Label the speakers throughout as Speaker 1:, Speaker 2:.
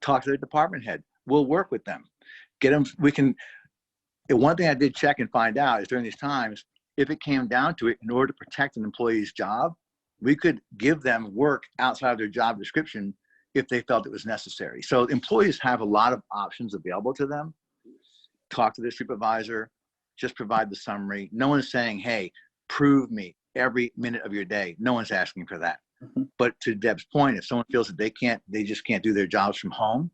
Speaker 1: talk to their department head. We'll work with them. Get them, we can, and one thing I did check and find out is during these times, if it came down to it, in order to protect an employee's job, we could give them work outside of their job description if they felt it was necessary. So employees have a lot of options available to them. Talk to their supervisor, just provide the summary. No one's saying, hey, prove me every minute of your day. No one's asking for that.
Speaker 2: Mhm.
Speaker 1: But to Deb's point, if someone feels that they can't, they just can't do their jobs from home,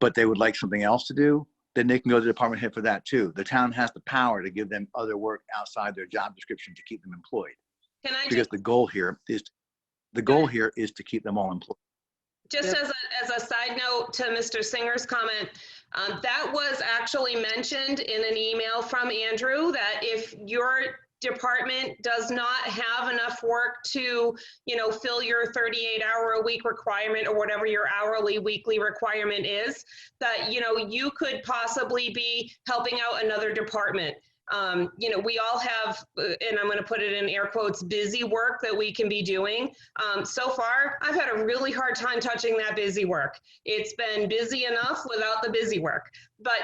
Speaker 1: but they would like something else to do, then they can go to the department head for that too. The town has the power to give them other work outside their job description to keep them employed.
Speaker 3: Can I
Speaker 1: Because
Speaker 3: just,
Speaker 1: the goal here is, the goal here is to keep them all employed.
Speaker 3: just as a, as a side note to Mr. Singer's comment, um, that was actually mentioned in an email from Andrew that if your department does not have enough work to, you know, fill your 38 hour a week requirement or whatever your hourly weekly requirement is, that, you know, you could possibly be helping out another department. Um, you know, we all have, uh, and I'm going to put it in air quotes, busy work that we can be doing. Um, so far, I've had a really hard time touching that busy work. It's been busy enough without the busy work. But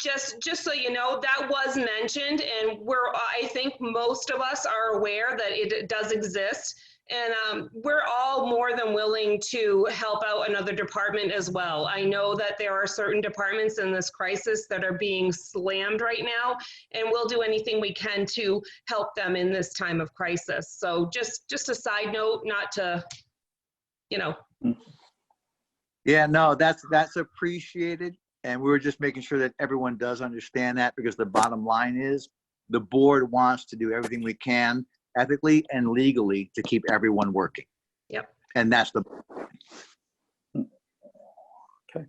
Speaker 3: just just so you know, that was mentioned, and we're I think most of us are aware that it does exist. And um, we're all more than willing to help out another department as well. I know that there are certain departments in this crisis that are being slammed right now, and we'll do anything we can to help them in this time of crisis. So just just a side note, not to, you know,
Speaker 1: Yeah, no, that's, that's appreciated. And we were just making sure that everyone does understand that because the bottom line is the board wants to do everything we can ethically and legally to keep everyone working.
Speaker 3: Yep.
Speaker 1: And that's the,
Speaker 2: Okay.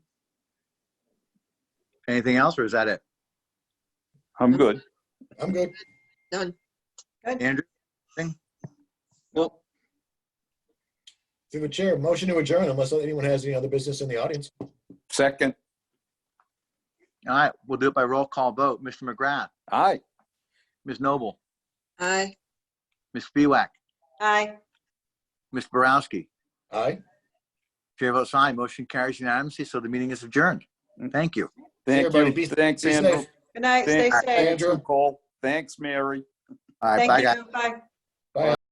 Speaker 1: anything else or is that it?
Speaker 2: I'm good.
Speaker 4: I'm good.
Speaker 1: Andrew?
Speaker 2: Nope.
Speaker 4: Through the chair, motion to adjourn unless anyone has any other business in the audience.
Speaker 2: Second.
Speaker 1: All right, we'll do it by roll call vote. Mr. McGrath,
Speaker 2: Aye.
Speaker 1: Ms. Noble,
Speaker 5: Aye.
Speaker 1: Ms. Spiewak,
Speaker 5: Aye.
Speaker 1: Ms. Borowski.
Speaker 4: Aye.
Speaker 1: Chair votes aye. Motion carries unanimously, so the meeting is adjourned. Thank you.
Speaker 2: Thank
Speaker 4: Everybody be-
Speaker 2: you. Thanks,
Speaker 4: be
Speaker 2: Andrew.
Speaker 4: safe.
Speaker 5: Good night, stay
Speaker 2: Thank-
Speaker 5: safe.
Speaker 4: Andrew.
Speaker 2: Cole. Thanks, Mary.
Speaker 1: All right, bye,
Speaker 5: Thank
Speaker 1: guys.
Speaker 5: you, bye.